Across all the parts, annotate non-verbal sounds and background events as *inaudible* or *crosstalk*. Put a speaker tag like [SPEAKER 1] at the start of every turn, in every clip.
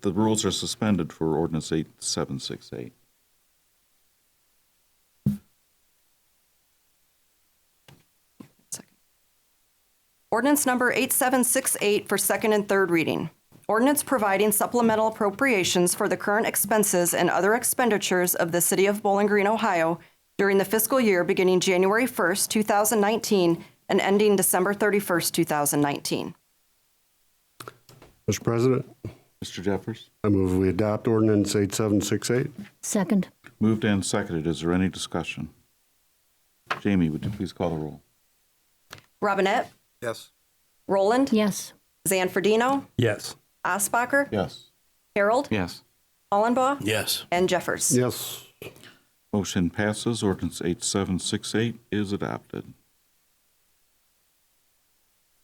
[SPEAKER 1] the rules are suspended for ordinance 8768.
[SPEAKER 2] Ordinance number 8768 for second and third reading. Ordinance providing supplemental appropriations for the current expenses and other expenditures of the City of Bowling Green, Ohio during the fiscal year beginning January 1st, 2019 and ending December 31st, 2019.
[SPEAKER 3] Mr. President,
[SPEAKER 1] Mr. Jeffers?
[SPEAKER 3] I move we adopt ordinance 8768.
[SPEAKER 4] Second.
[SPEAKER 1] Moved and seconded. Is there any discussion? Jamie, would you please call the roll?
[SPEAKER 2] Robinette?
[SPEAKER 5] Yes.
[SPEAKER 2] Roland?
[SPEAKER 4] Yes.
[SPEAKER 2] Zanfordino?
[SPEAKER 5] Yes.
[SPEAKER 2] Osbacher?
[SPEAKER 1] Yes.
[SPEAKER 2] Harold?
[SPEAKER 1] Yes.
[SPEAKER 2] Hollenbaugh?
[SPEAKER 5] Yes.
[SPEAKER 2] And Jeffers?
[SPEAKER 3] Yes.
[SPEAKER 1] Motion passes. Ordinance 8768 is adopted.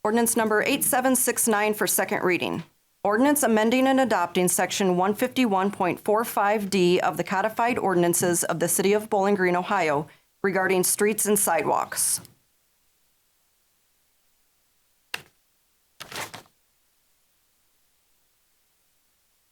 [SPEAKER 2] Ordinance number 8769 for second reading. Ordinance amending and adopting Section 151.45D of the codified ordinances of the City of Bowling Green, Ohio regarding streets and sidewalks.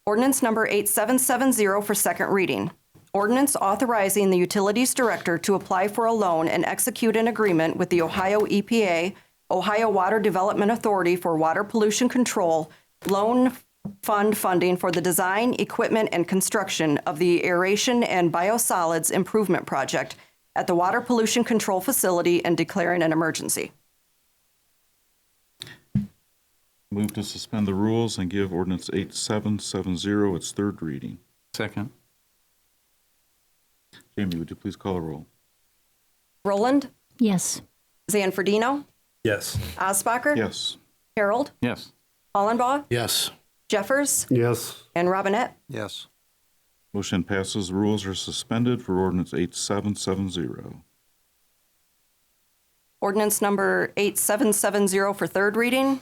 [SPEAKER 2] Ordinance number 8770 for second reading. Ordinance authorizing the Utilities Director to apply for a loan and execute an agreement with the Ohio EPA, Ohio Water Development Authority for Water Pollution Control, loan fund funding for the design, equipment, and construction of the aeration and biosolids improvement project at the Water Pollution Control Facility and declaring an emergency.
[SPEAKER 1] Move to suspend the rules and give ordinance 8770 its third reading.
[SPEAKER 6] Second.
[SPEAKER 1] Jamie, would you please call the roll?
[SPEAKER 2] Roland,
[SPEAKER 4] Yes.
[SPEAKER 2] Zanfordino,
[SPEAKER 5] Yes.
[SPEAKER 2] Osbacher,
[SPEAKER 1] Yes.
[SPEAKER 2] Harold,
[SPEAKER 6] Yes.
[SPEAKER 2] Hollenbaugh,
[SPEAKER 5] Yes.
[SPEAKER 2] Jeffers,
[SPEAKER 3] Yes.
[SPEAKER 2] and Robinette.
[SPEAKER 5] Yes.
[SPEAKER 1] Motion passes. Rules are suspended for ordinance 8770.
[SPEAKER 2] Ordinance number 8770 for third reading.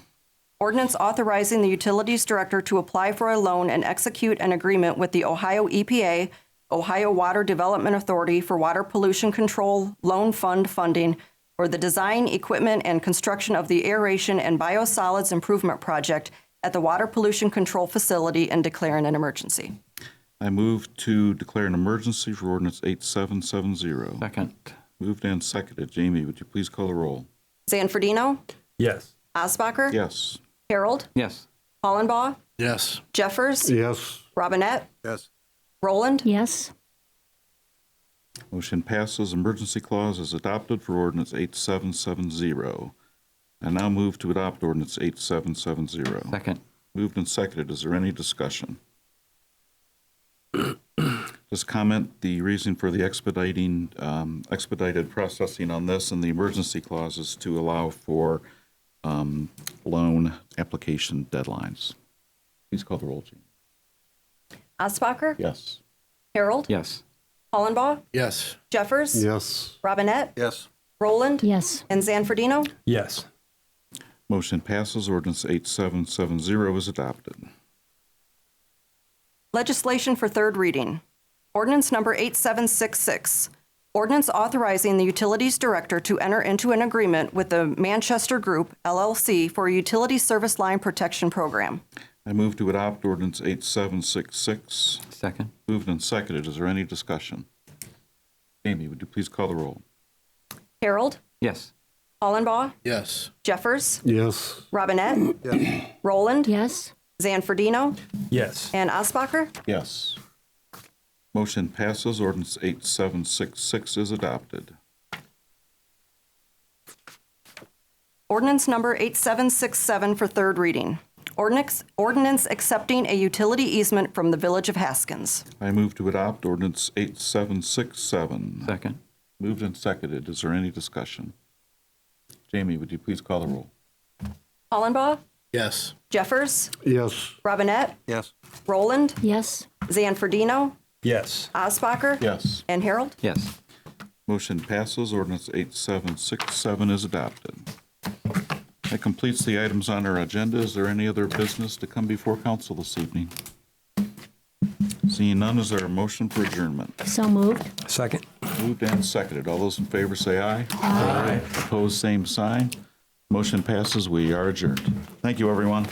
[SPEAKER 2] Ordinance authorizing the Utilities Director to apply for a loan and execute an agreement with the Ohio EPA, Ohio Water Development Authority for Water Pollution Control Loan Fund funding for the design, equipment, and construction of the aeration and biosolids improvement project at the Water Pollution Control Facility and declaring an emergency.
[SPEAKER 1] I move to declare an emergency for ordinance 8770.
[SPEAKER 6] Second.
[SPEAKER 1] Moved and seconded. Jamie, would you please call the roll?
[SPEAKER 2] Zanfordino?
[SPEAKER 5] Yes.
[SPEAKER 2] Osbacher?
[SPEAKER 1] Yes.
[SPEAKER 2] Harold?
[SPEAKER 6] Yes.
[SPEAKER 2] Hollenbaugh?
[SPEAKER 5] Yes.
[SPEAKER 2] Jeffers?
[SPEAKER 3] Yes.
[SPEAKER 2] Robinette?
[SPEAKER 5] Yes.
[SPEAKER 2] Roland?
[SPEAKER 4] Yes.
[SPEAKER 1] Motion passes. Emergency clause is adopted for ordinance 8770. I now move to adopt ordinance 8770.
[SPEAKER 6] Second.
[SPEAKER 1] Moved and seconded. Is there any discussion? *clears throat* Just comment, the reason for the expediting, um, expedited processing on this and the emergency clause is to allow for um, loan application deadlines. Please call the roll, Gene.
[SPEAKER 2] Osbacher?
[SPEAKER 1] Yes.
[SPEAKER 2] Harold?
[SPEAKER 6] Yes.
[SPEAKER 2] Hollenbaugh?
[SPEAKER 5] Yes.
[SPEAKER 2] Jeffers?
[SPEAKER 3] Yes.
[SPEAKER 2] Robinette?
[SPEAKER 5] Yes.
[SPEAKER 2] Roland?
[SPEAKER 4] Yes.
[SPEAKER 2] And Zanfordino?
[SPEAKER 5] Yes.
[SPEAKER 1] Motion passes. Ordinance 8770 is adopted.
[SPEAKER 2] Legislation for third reading. Ordinance number 8766. Ordinance authorizing the Utilities Director to enter into an agreement with the Manchester Group LLC for a utility service line protection program.
[SPEAKER 1] I move to adopt ordinance 8766.
[SPEAKER 6] Second.
[SPEAKER 1] Moved and seconded. Is there any discussion? Amy, would you please call the roll?
[SPEAKER 2] Harold?
[SPEAKER 6] Yes.
[SPEAKER 2] Hollenbaugh?
[SPEAKER 5] Yes.
[SPEAKER 2] Jeffers?
[SPEAKER 3] Yes.
[SPEAKER 2] Robinette? Roland?
[SPEAKER 4] Yes.
[SPEAKER 2] Zanfordino?
[SPEAKER 5] Yes.
[SPEAKER 2] And Osbacher?
[SPEAKER 1] Yes. Motion passes. Ordinance 8766 is adopted.
[SPEAKER 2] Ordinance number 8767 for third reading. Ordinance, ordinance accepting a utility easement from the Village of Haskins.
[SPEAKER 1] I move to adopt ordinance 8767.
[SPEAKER 6] Second.
[SPEAKER 1] Moved and seconded. Is there any discussion? Jamie, would you please call the roll?
[SPEAKER 2] Hollenbaugh,
[SPEAKER 5] Yes.
[SPEAKER 2] Jeffers,
[SPEAKER 3] Yes.
[SPEAKER 2] Robinette,
[SPEAKER 5] Yes.
[SPEAKER 2] Roland,
[SPEAKER 4] Yes.
[SPEAKER 2] Zanfordino,
[SPEAKER 5] Yes.
[SPEAKER 2] Osbacher,
[SPEAKER 1] Yes.
[SPEAKER 2] and Harold.
[SPEAKER 6] Yes.
[SPEAKER 1] Motion passes. Ordinance 8767 is adopted. That completes the items on our agenda. Is there any other business to come before council this evening? Seeing none, is there a motion for adjournment?
[SPEAKER 4] So moved.
[SPEAKER 5] Second.
[SPEAKER 1] Moved and seconded. All those in favor say aye. Aye. Opposed, same sign. Motion passes. We are adjourned. Thank you, everyone.